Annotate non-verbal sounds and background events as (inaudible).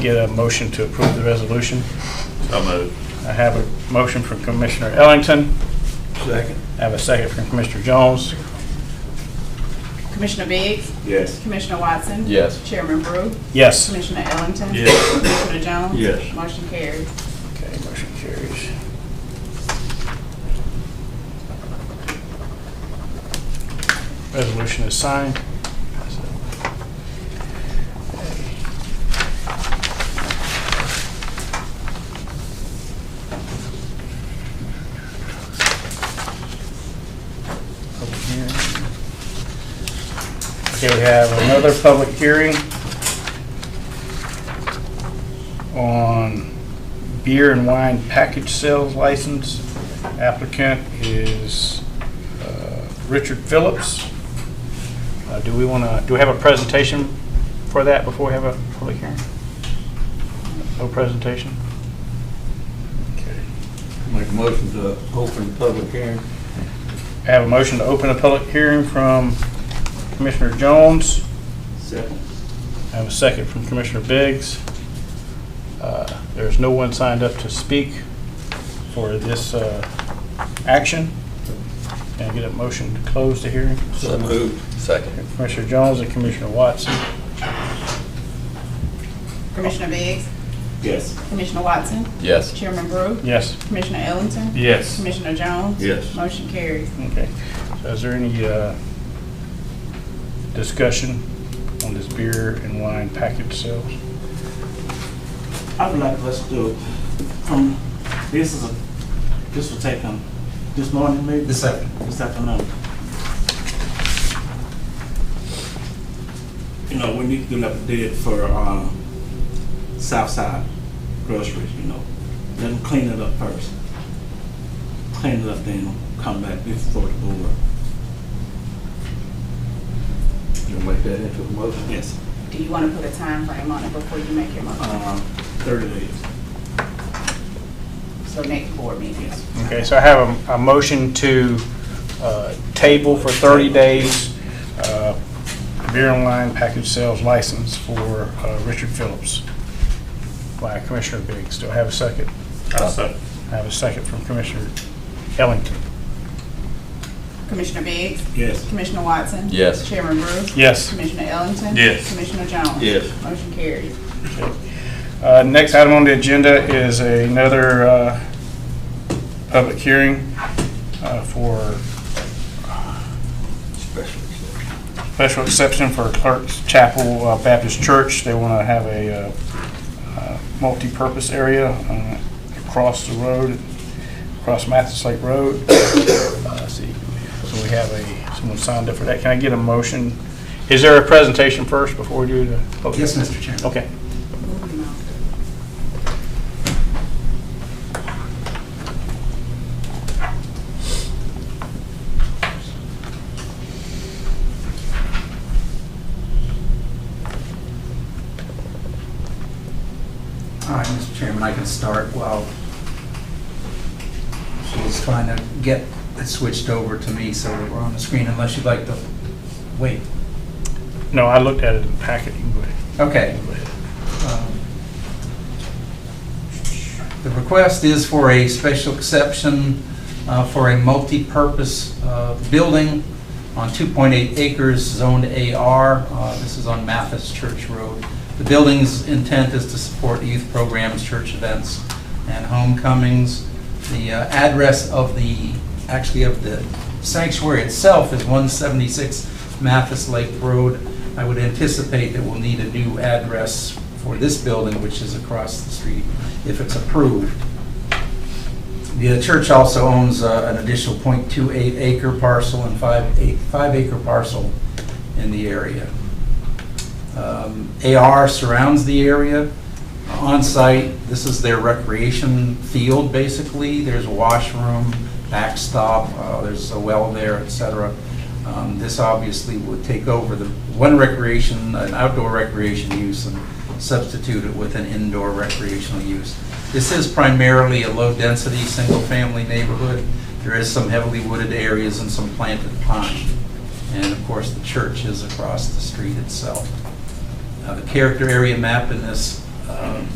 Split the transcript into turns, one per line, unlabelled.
Get a motion to approve the resolution.
So moved.
I have a motion from Commissioner Ellington.
Second.
I have a second from Commissioner Jones.
Commissioner Biggs?
Yes.
Commissioner Watson?
Yes.
Chairman Brew?
Yes.
Commissioner Ellington?
Yes.
Commissioner Jones?
Yes.
Motion carries.
Okay, motion carries. Resolution is signed. Public hearing. Okay, we have another public hearing on beer and wine package sales license. Applicant is uh, Richard Phillips. Uh, Do we want to, do we have a presentation for that before we have a public hearing? No presentation? Okay.
Make a motion to open the public hearing.
I have a motion to open a public hearing from Commissioner Jones.
Second.
I have a second from Commissioner Biggs. Uh, There's no one signed up to speak for this uh, action. Can I get a motion to close the hearing?
So moved.
Second.
Commissioner Jones and Commissioner Watson.
Commissioner Biggs?
Yes.
Commissioner Watson?
Yes.
Chairman Brew?
Yes.
Commissioner Ellington?
Yes.
Commissioner Jones?
Yes.
Motion carries.
Okay. So is there any uh, discussion on this beer and wine package sales?
I would like us to, from, this is a, this was taken this morning, maybe? This afternoon. This afternoon. You know, we need to do an update for, um, Southside groceries, you know. Let them clean it up first. Clean it up, then come back before the board.
You make that into a motion?
Yes,
Do you want to put a time frame on it before you make your motion?
um, thirty days.
So next board meeting?
Okay, so I have a, a motion to uh, table for 30 days, uh, beer and wine package sales license for uh, Richard Phillips by Commissioner Biggs. Do I have a second?
I second.
I have a second from Commissioner Ellington.
Commissioner Biggs?
Yes.
Commissioner Watson?
Yes.
Chairman Brew?
Yes.
Commissioner Ellington?
Yes.
Commissioner Jones?
Yes.
Motion carries.
Uh, Next item on the agenda is another uh, public hearing uh, for
Special exception.
special exception for Clark's Chapel uh, Baptist Church. They want to have a uh, uh, multi-purpose area uh, across the road, across Mathis Lake Road. (coughs) Uh, let's see. So we have a, someone signed up for that. Can I get a motion? Is there a presentation first before we do the?
Yes, Mr. Chairman.
Okay.
Moving on.
All right, Mr. Chairman, I can start while she's trying to get it switched over to me so that we're on the screen unless you'd like to wait.
No, I looked at it in the packet. You can go ahead.
Okay. Um, The request is for a special exception uh, for a multi-purpose uh, building on 2.8 acres zoned AR. Uh, This is on Mathis Church Road. The building's intent is to support youth programs, church events, and homecomings. The uh, address of the, actually of the sanctuary itself is 176 Mathis Lake Road. I would anticipate that we'll need a new address for this building, which is across the street, if it's approved. The church also owns uh, an additional .28 acre parcel and five ac- five acre parcel in the area. Um, AR surrounds the area. On-site, this is their recreation field, basically. There's a washroom, backstop, uh, there's a well there, et cetera. Um, This obviously would take over the one recreation, an outdoor recreation use, and substitute it with an indoor recreational use. This is primarily a low-density, single-family neighborhood. There is some heavily wooded areas and some planted pine. And of course, the church is across the street itself. Uh, The character area map in this uh,